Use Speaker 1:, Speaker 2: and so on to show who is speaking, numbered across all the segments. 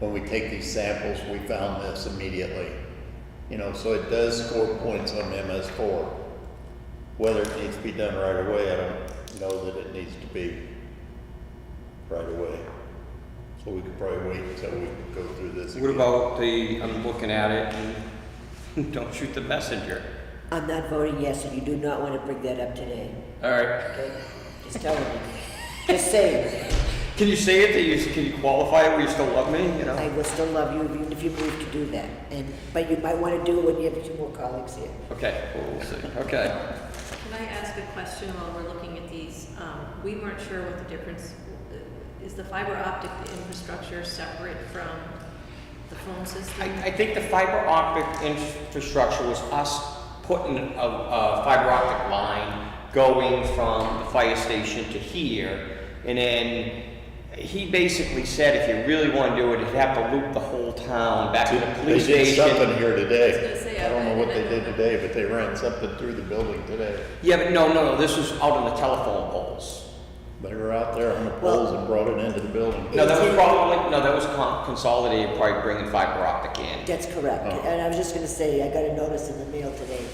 Speaker 1: when we take these samples, we found this immediately. You know, so it does score points on MS four. Whether it needs to be done right away, I don't know that it needs to be right away. So we could probably wait until we go through this
Speaker 2: What
Speaker 1: again.
Speaker 2: about the, I'm looking at it, and don't shoot the messenger.
Speaker 3: I'm not voting yes, and you do not want to bring that up today,
Speaker 2: All right.
Speaker 3: okay? Just telling you. Just saying,
Speaker 2: Can you say it, that you, can you qualify it where you still love me, you
Speaker 3: I
Speaker 2: know?
Speaker 3: will still love you even if you move to do that, and, but you might want to do it when you have two more colleagues here.
Speaker 2: Okay, we'll see, okay.
Speaker 4: Can I ask a question while we're looking at these? Um, We weren't sure what the difference, uh, is the fiber optic infrastructure separate from the phone system?
Speaker 2: I, I think the fiber optic infrastructure was us putting a, a fiber optic line going from the fire station to here. And then he basically said if you really want to do it, you'd have to loop the whole town back to the
Speaker 1: They
Speaker 2: police
Speaker 1: did
Speaker 2: station.
Speaker 1: something here
Speaker 4: I was gonna
Speaker 1: today.
Speaker 4: say,
Speaker 1: I don't know what
Speaker 4: I-
Speaker 1: they did today, but they ran something through the building today.
Speaker 2: Yeah, but no, no, no, this was out on the telephone poles.
Speaker 1: They were out there on the poles and brought it into the building.
Speaker 2: No, that was probably, no, that was con- consolidated, probably bringing fiber optic in.
Speaker 3: That's correct,
Speaker 1: Oh.
Speaker 3: and I was just gonna say, I got a notice in the mail today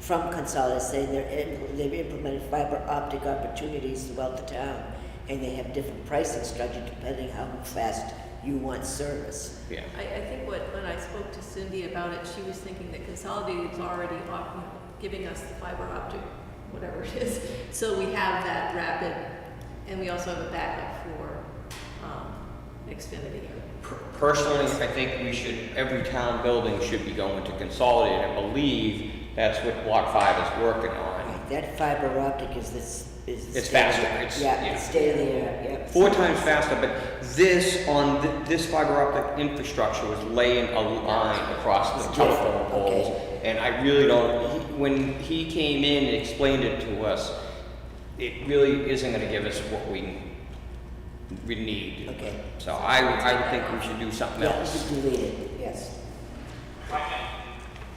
Speaker 3: from Consolidated saying they're, in- they've implemented fiber optic opportunities throughout the town, and they have different pricing structure depending how fast you want service.
Speaker 2: Yeah.
Speaker 4: I, I think what, when I spoke to Cindy about it, she was thinking that Consolidated is already off- giving us the fiber optic, whatever it is. So we have that rapid, and we also have a backup for um, Xfinity.
Speaker 2: Per- Personally, I think we should, every town building should be going to consolidate. I believe that's what Block Five is working on.
Speaker 3: Right, That fiber optic is this, is.
Speaker 2: It's faster, it's-
Speaker 3: Yeah,
Speaker 2: yeah.
Speaker 3: it's stay there, yep.
Speaker 2: Four times faster, but this on, th- this fiber optic infrastructure was laying a line across the
Speaker 3: Yeah,
Speaker 2: telephone
Speaker 3: okay.
Speaker 2: poles. And I really don't, he- when he came in and explained it to us, it really isn't gonna give us what we, we need.
Speaker 3: Okay.
Speaker 2: So I, I would think we should do something
Speaker 3: Yeah,
Speaker 2: else.
Speaker 3: you delete it, yes.
Speaker 5: I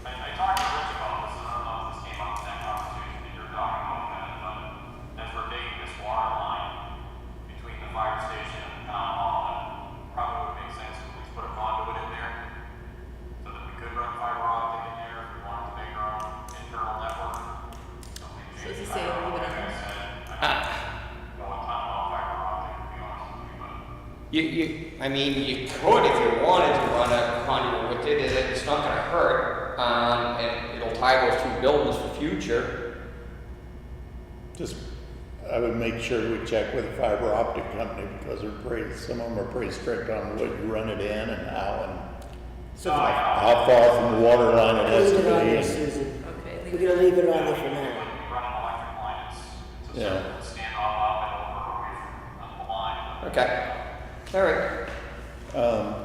Speaker 5: I talked to Rich about this, and I don't know if this came up in that conversation that you're talking about, Ben, but as we're digging this water line between the fire station and the town hall, it probably would make sense if we put a conduit in there so that we could run fiber optic in there if we wanted to make our own internal network.
Speaker 4: So it's the same, leave it on.
Speaker 5: No one thought about fiber optic, to be honest with you, but
Speaker 2: You, you, I mean, you could if you wanted to run a conduit with it, it- it's not gonna hurt. Um, and it'll tie those two buildings for future.
Speaker 1: Just, I would make sure we check with the fiber optic company because they're pretty, some of them are pretty strict on what you run it in and how and
Speaker 3: So
Speaker 1: how far from the water line it has
Speaker 3: Leave
Speaker 1: to
Speaker 3: it on there,
Speaker 1: be.
Speaker 3: Susan.
Speaker 4: Okay,
Speaker 3: We're
Speaker 4: leave it.
Speaker 3: gonna leave it on there for now.
Speaker 5: run an electric line, it's, it's a
Speaker 1: Yeah.
Speaker 5: certain standoff up and over with uh, the line, but
Speaker 2: Okay. All right.
Speaker 1: Um,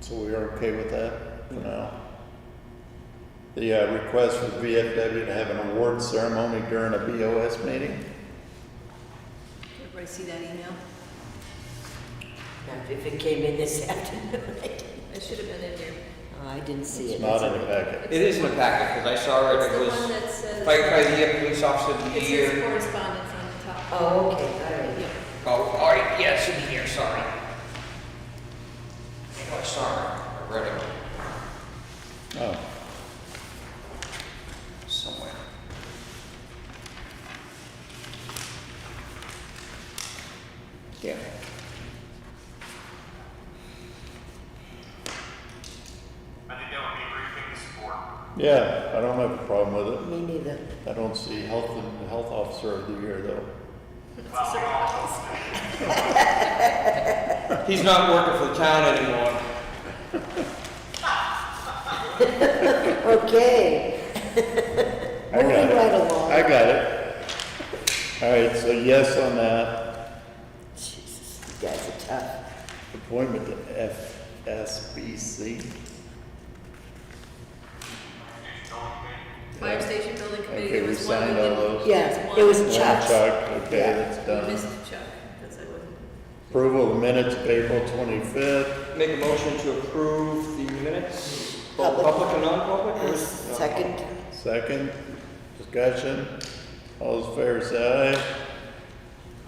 Speaker 1: So we are okay with that for now? The uh, request for VFW to have an award ceremony during a BOS meeting?
Speaker 4: Everybody see that email?
Speaker 3: Now, If it came in this afternoon, I didn't-
Speaker 4: It should have been in here.
Speaker 3: oh, I didn't see
Speaker 1: It's
Speaker 3: it.
Speaker 1: not
Speaker 3: that's
Speaker 1: in the
Speaker 3: okay.
Speaker 1: packet.
Speaker 2: It is in the packet, cause I saw it,
Speaker 4: It's
Speaker 2: it
Speaker 4: the
Speaker 2: was
Speaker 4: one that says,
Speaker 2: firefighter of the year, police officer of the
Speaker 4: it says
Speaker 2: year.
Speaker 4: correspondence on the top.
Speaker 3: Oh, okay, all right.
Speaker 4: Yeah.
Speaker 2: Oh, all right, yeah, it should be here, sorry. I know I saw it, I read it
Speaker 1: Oh,
Speaker 2: somewhere. Yeah.
Speaker 5: I think that would be a great thing to support.
Speaker 1: yeah, I don't have a problem with it.
Speaker 3: Me neither.
Speaker 1: I don't see health, and health officer of the year though.
Speaker 2: He's not working for the town anymore.
Speaker 3: Okay.
Speaker 1: I got
Speaker 3: Moving
Speaker 1: it.
Speaker 3: right along.
Speaker 1: I got it. All right, so yes on that,
Speaker 3: Jesus, you guys are tough.
Speaker 1: appointment to FSBC.
Speaker 4: Fire station building committee,
Speaker 1: Okay,
Speaker 4: there
Speaker 1: we
Speaker 4: was one. we
Speaker 1: signed all
Speaker 4: didn't-
Speaker 1: those.
Speaker 3: Yeah,
Speaker 4: there
Speaker 3: it
Speaker 4: one.
Speaker 3: was-
Speaker 1: One
Speaker 3: Chuck.
Speaker 1: Chuck, okay,
Speaker 3: Yeah.
Speaker 1: that's
Speaker 4: We
Speaker 1: done.
Speaker 4: missed Chuck, because I wasn't.
Speaker 1: Approval of minutes of April twenty-fifth.
Speaker 2: Make a motion to approve the minutes, both
Speaker 3: Public.
Speaker 2: public and non-public? or
Speaker 3: Uh,
Speaker 2: is- no,
Speaker 3: Second,
Speaker 1: Second, discussion. All those in favor say
Speaker 3: aye.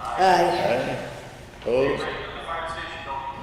Speaker 1: aye. Aye. Opposed?